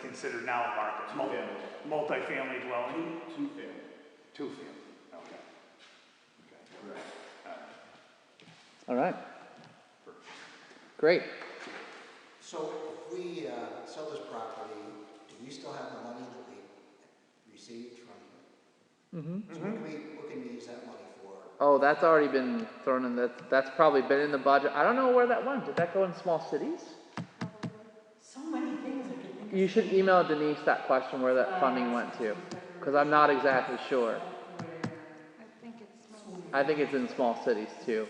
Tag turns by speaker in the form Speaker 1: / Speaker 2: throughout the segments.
Speaker 1: considered now a market? Mul-
Speaker 2: Two-family.
Speaker 1: Multifamily dwelling?
Speaker 2: Two family.
Speaker 1: Two-family, okay.
Speaker 3: All right. Great.
Speaker 4: So if we uh, sell this property, do we still have the money that we received from? So what can we, what can we use that money for?
Speaker 3: Oh, that's already been thrown in. That that's probably been in the budget. I don't know where that went. Did that go in small cities?
Speaker 5: So many things I could think of.
Speaker 3: You should email Denise that question where that funding went to, because I'm not exactly sure.
Speaker 6: I think it's small.
Speaker 3: I think it's in small cities too.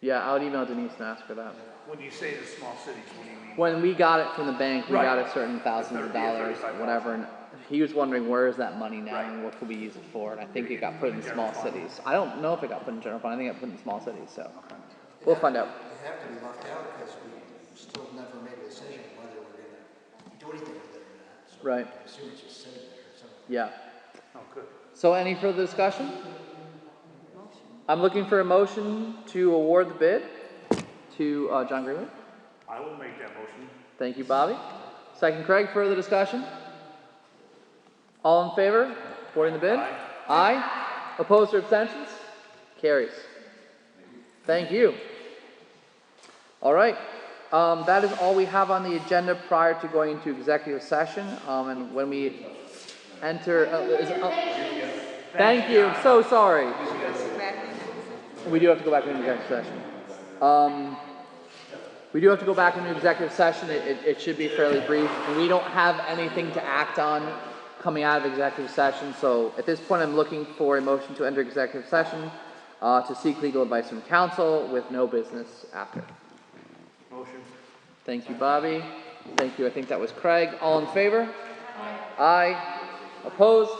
Speaker 3: Yeah, I would email Denise and ask her that.
Speaker 1: When you say the small cities, what do you mean?
Speaker 3: When we got it from the bank, we
Speaker 1: Right.
Speaker 3: got a certain thousands of
Speaker 1: Thirty or
Speaker 3: dollars,
Speaker 1: thirty-five
Speaker 3: whatever. And he was wondering where is that money now
Speaker 1: Right.
Speaker 3: and what could we use it for? And I think it got put in
Speaker 1: General
Speaker 3: small
Speaker 1: fund.
Speaker 3: cities. I don't know if it got put in general fund. I think it got put in small cities. So we'll find out.
Speaker 4: It have to be left out because we still never made a decision whether we're gonna do anything with it or not. So
Speaker 3: Right.
Speaker 4: I assume it's just sitting there somewhere.
Speaker 3: Yeah.
Speaker 1: Oh, good.
Speaker 3: So any further discussion? I'm looking for a motion to award the bid to uh, John Greenwood.
Speaker 1: I will make that motion.
Speaker 3: Thank you, Bobby. Second, Craig. Further discussion? All in favor? Supporting the bid?
Speaker 1: Aye.
Speaker 3: Aye. Opposed or abstentions? Carries. Thank you. All right. Um, that is all we have on the agenda prior to going into executive session. Um, and when we enter, uh, is- uh, thank you. I'm so sorry. We do have to go back into executive session. Um, we do have to go back into executive session. It, it, it should be fairly brief. We don't have anything to act on coming out of executive session. So at this point, I'm looking for a motion to enter executive session uh, to seek legal advice from counsel with no business after.
Speaker 1: Motion.
Speaker 3: Thank you, Bobby. Thank you. I think that was Craig. All in favor? Aye. Opposed?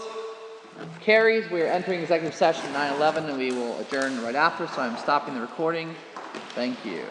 Speaker 3: Carries. We are entering executive session 9/11, and we will adjourn right after. So I'm stopping the recording. Thank you.